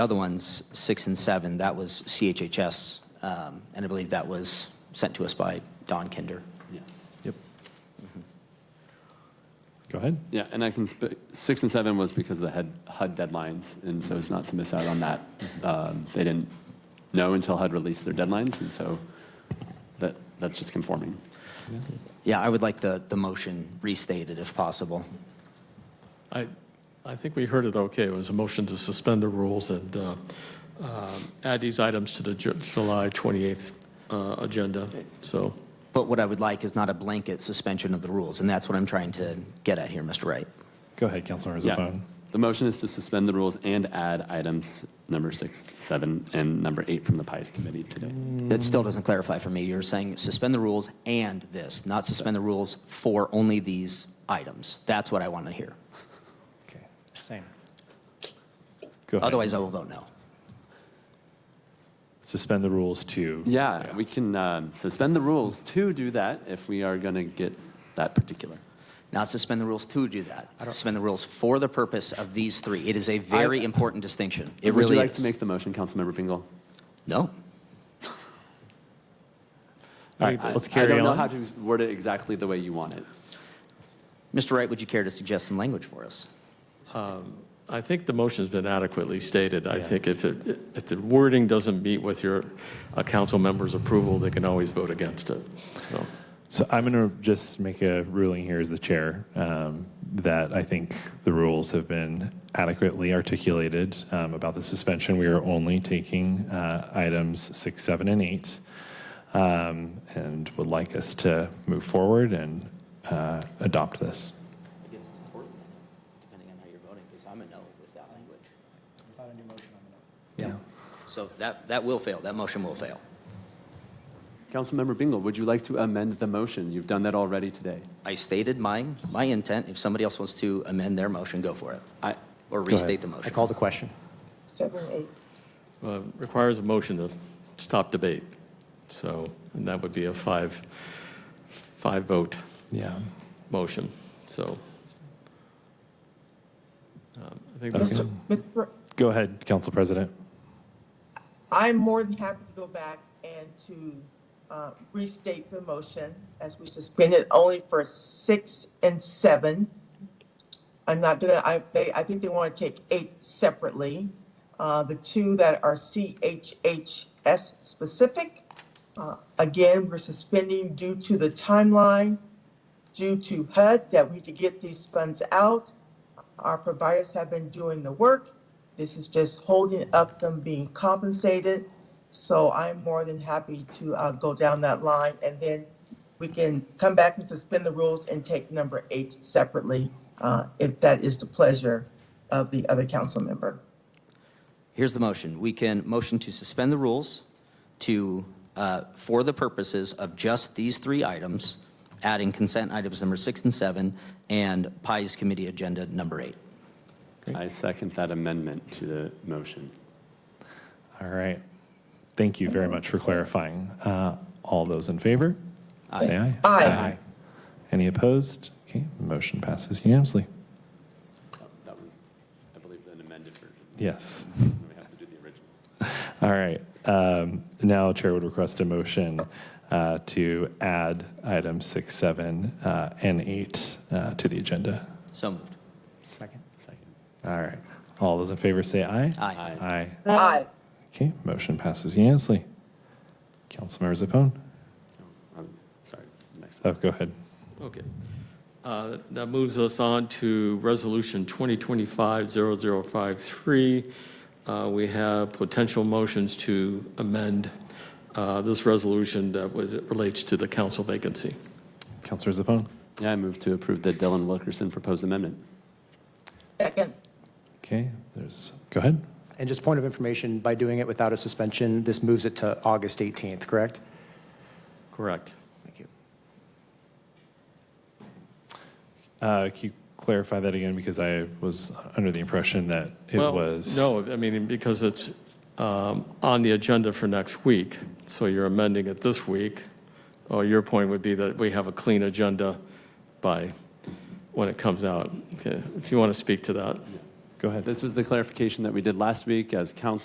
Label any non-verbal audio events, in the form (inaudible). Other ones, six and seven, that was CHHS, um, and I believe that was sent to us by Don Kinder. Yep. Mm-hmm. Go ahead. Yeah, and I can, sp- six and seven was because of the head- HUD deadlines, and so it's not to miss out on that. Mm-hmm. Um, They didn't know until HUD released their deadlines, and so that, that's just conforming. Yeah, I would like the, the motion restated if possible. I, I think we heard it okay. It was a motion to suspend the rules and uh, um, add these items to the Ju- July 28th uh, agenda. So, But what I would like is not a blanket suspension of the rules, and that's what I'm trying to get at here, Mr. Wright. Go ahead, Councilor Yeah. Zabon. The motion is to suspend the rules and add items number six, seven, and number eight from the PIES committee today. That still doesn't clarify for me. You're saying suspend the rules and this, not suspend the rules for only these items. That's what I want to hear. Okay, same. Go ahead. Otherwise, I will vote no. Suspend the rules to. Yeah, we can um, suspend the rules to do that if we are going to get that particular. Not suspend the rules to do that. Suspend the rules for the purpose of these three. It is a very important distinction. It Would really you like to is. make the motion, Councilmember Pingle? No. All right, let's I carry don't know on. how to word it exactly the way you want it. Mr. Wright, would you care to suggest some language for us? I think the motion's been adequately stated. I think if, it- if the wording doesn't meet with your uh, council members' approval, they can always vote against it. So, So I'm going to just make a ruling here as the chair um, that I think the rules have been adequately articulated um, about the suspension. We are only taking uh, items six, seven, and eight, um, and would like us to move forward and uh, adopt this. I guess it's important, depending on how you're voting, because I'm a no with that language. Yeah. So that, that will fail. That motion will fail. Councilmember Bingle, would you like to amend the motion? You've done that already today. I stated my, my intent. If somebody else wants to amend their motion, go for it. I, Or ahead. restate the motion. I call the question. Seven, eight. uh, requires a motion to stop debate. So, and that would be a five, five vote Yeah. motion. So. um, I think that's Okay. Mr. Fr- Go ahead, Council President. I'm more than happy to go back and to uh, restate the motion as we suspend it only for six and seven. I'm not gonna, I, they, I think they want to take eight separately. Uh, The two that are CHHS specific, uh, again, we're suspending due to the timeline, due to HUD, that we need to get these funds out. Our providers have been doing the work. This is just holding up them being compensated. So I'm more than happy to uh, go down that line and then we can come back and suspend the rules and take number eight separately uh, if that is the pleasure of the other council member. Here's the motion. We can motion to suspend the rules to, uh, for the purposes of just these three items, adding consent items number six and seven, and PIE's committee agenda number eight. I second that amendment to the motion. All right. Thank you very much for clarifying. Uh, All those in favor? Say aye. Aye. Any opposed? Okay, motion passes unanimously. That was, I believe, an amended version. Yes. We have to do the original. (laughs) All right. Um, Now, Chair would request a motion uh, to add items six, seven, uh, and eight uh, to the agenda. So moved. Second. Second. All right. All those in favor say aye. Aye. Aye. Aye. Okay, motion passes unanimously. Councilmember Zepon? Um, Sorry, next one. Oh, go ahead. Okay. Uh, That moves us on to Resolution 2025-0053. Uh, We have potential motions to amend uh, this resolution that was- relates to the council vacancy. Councilor Zepon? Yeah, I move to approve the Dylan Wilkerson proposed amendment. Second. Okay, there's, go ahead. And just point of information, by doing it without a suspension, this moves it to August 18th, correct? Correct. Thank you. Uh, Can you clarify that again? Because I was under the impression that it Well, was. No, I mean, because it's um, on the agenda for next week, so you're amending it this week. Or your point would be that we have a clean agenda by when it comes out. Okay, If you want to speak to that. Go ahead. This was the clarification that we did last week as council